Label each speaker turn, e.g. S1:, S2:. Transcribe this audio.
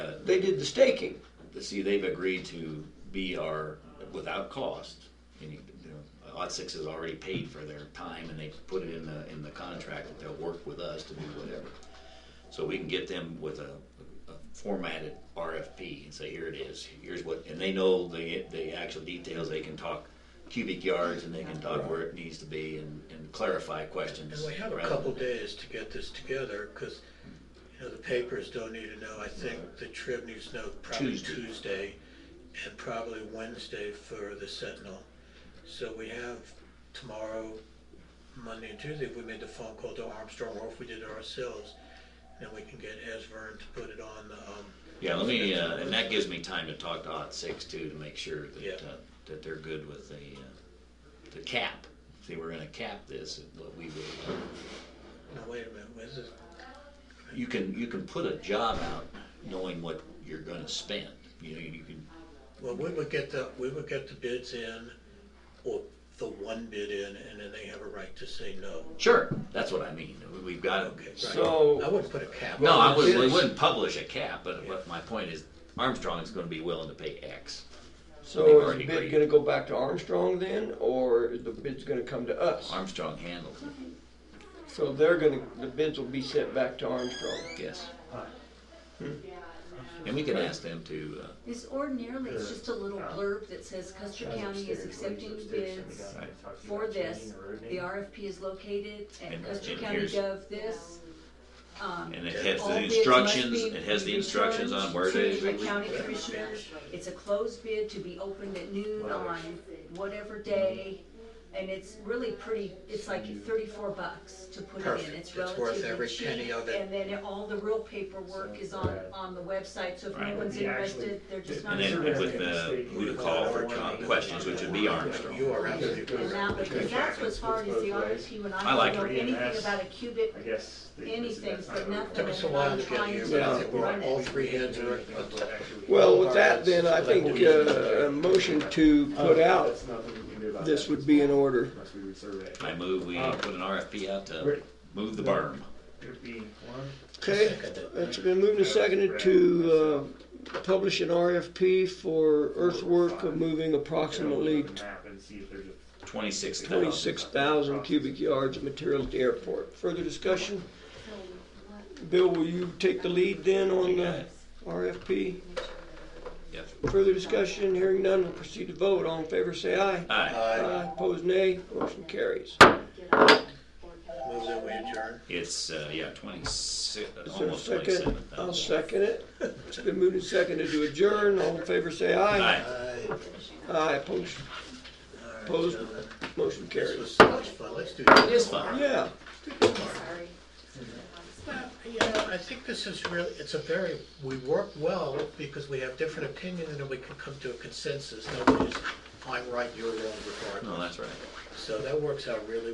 S1: did the staking.
S2: See, they've agreed to be our, without cost, and you know, Lot Six has already paid for their time, and they put it in the, in the contract that they'll work with us to do whatever. So we can get them with a, a formatted RFP and say, here it is, here's what, and they know the, the actual details, they can talk cubic yards, and they can talk where it needs to be, and, and clarify questions.
S3: And we have a
S2: rather
S3: couple
S2: than-
S3: days to get this together, because, you know, the papers don't need to know. I think the Trib needs to know probably
S2: Tuesday.
S3: Tuesday, and probably Wednesday for the Sentinel. So we have tomorrow, Monday and Tuesday, if we made the phone call to Armstrong, or if we did it ourselves, then we can get Esvern to put it on the, um,
S2: Yeah, let me, uh, and that gives me time to talk to Ot Six too, to make sure
S3: Yeah.
S2: that, uh, that they're good with the, uh, the cap. See, we're gonna cap this, at what we would, uh,
S3: no, wait a minute, was it?
S2: you can, you can put a job out knowing what you're gonna spend. You know, you can,
S3: Well, we would get the, we would get the bids in, or the one bid in, and then they have a right to say no.
S2: sure, that's what I mean, we've got,
S3: Okay, right.
S1: So-
S3: I wouldn't put a cap.
S2: no,
S3: on
S2: I
S3: it.
S2: wouldn't, we wouldn't publish a cap, but what my point is Armstrong's gonna be willing to pay X. They've
S1: So is
S2: already
S1: the bid
S2: agreed.
S1: gonna go back to Armstrong then, or is the bid's gonna come to us?
S2: Armstrong handles it,
S1: So they're gonna, the bids will be sent back to Armstrong.
S2: yes. And we can ask them to, uh,
S4: This ordinarily is just a little blurb that says Custer County is accepting bids for this. The RFP is located at
S2: And-
S4: Custer
S2: and
S4: County
S2: here's-
S4: gov this. Um,
S2: And it has
S4: all
S2: the
S4: bids must
S2: instructions,
S4: be
S2: it has the instructions on where to,
S4: returned To the county commissioners, it's a closed bid to be opened at noon on whatever day. And it's really pretty, it's like thirty-four bucks to put it in,
S3: Perfect.
S4: it's
S3: It's worth
S4: relatively
S3: every penny
S4: cheap.
S3: of it.
S4: And then it- all the real paperwork is on, on the website, so if
S2: Right.
S4: no one's
S5: Yeah, actually,
S4: interested, they're just not
S2: and then with
S4: interested.
S2: the, who to call for com- questions, which would be
S3: You
S2: Armstrong.
S3: are absolutely
S4: And
S3: correct.
S4: that, because that's what's hard is the RFP, when
S2: I
S4: I
S2: like
S4: don't know
S2: reading
S4: anything
S5: this.
S4: about a cubic,
S5: I guess. they-
S4: anything
S5: that's not how
S4: for
S5: it
S4: nothing.
S3: Took us a while to get here, but I think we're all three heads are,
S5: works. Actually,
S1: Well, with that then, I think uh, a motion to put out
S5: That's nothing we can do about
S1: this
S5: that.
S1: would be in order.
S5: Unless we would survey.
S2: I move, we
S1: Uh,
S2: put an RFP out to move the berm.
S5: Could be one.
S1: Okay, it's been moved and seconded to uh, publish an RFP for earthwork of moving approximately
S5: Look at the map and see if there's a-
S2: Twenty-six thousand.
S1: twenty-six thousand cubic yards of material at the airport. Further discussion? Bill, will you take the lead then on the RFP?
S2: Yes.
S1: Further discussion, hearing none, we'll proceed to vote. All in favor, say aye.
S2: Aye,
S1: Aye. Opposed, nay. Motion carries.
S3: move that we adjourn.
S2: it's, uh, yeah, twenty-six,
S1: Is there a
S2: almost
S1: second?
S2: twenty-seven
S1: I'll
S2: thousand.
S1: second it. It's been moved and seconded to adjourn. All in favor, say aye.
S2: Aye,
S3: Aye.
S1: Aye, opposed,
S3: All right,
S1: Opposed?
S3: gentlemen.
S1: motion
S3: This
S1: carries.
S3: was so much fun. Let's do this.
S2: it is fine.
S1: Yeah,
S3: You know, I think this is really, it's a very, we work well because we have different opinions and we can come to a consensus. Nobody's, I'm right, you're wrong regardless.
S2: No, that's right.
S3: So that works out really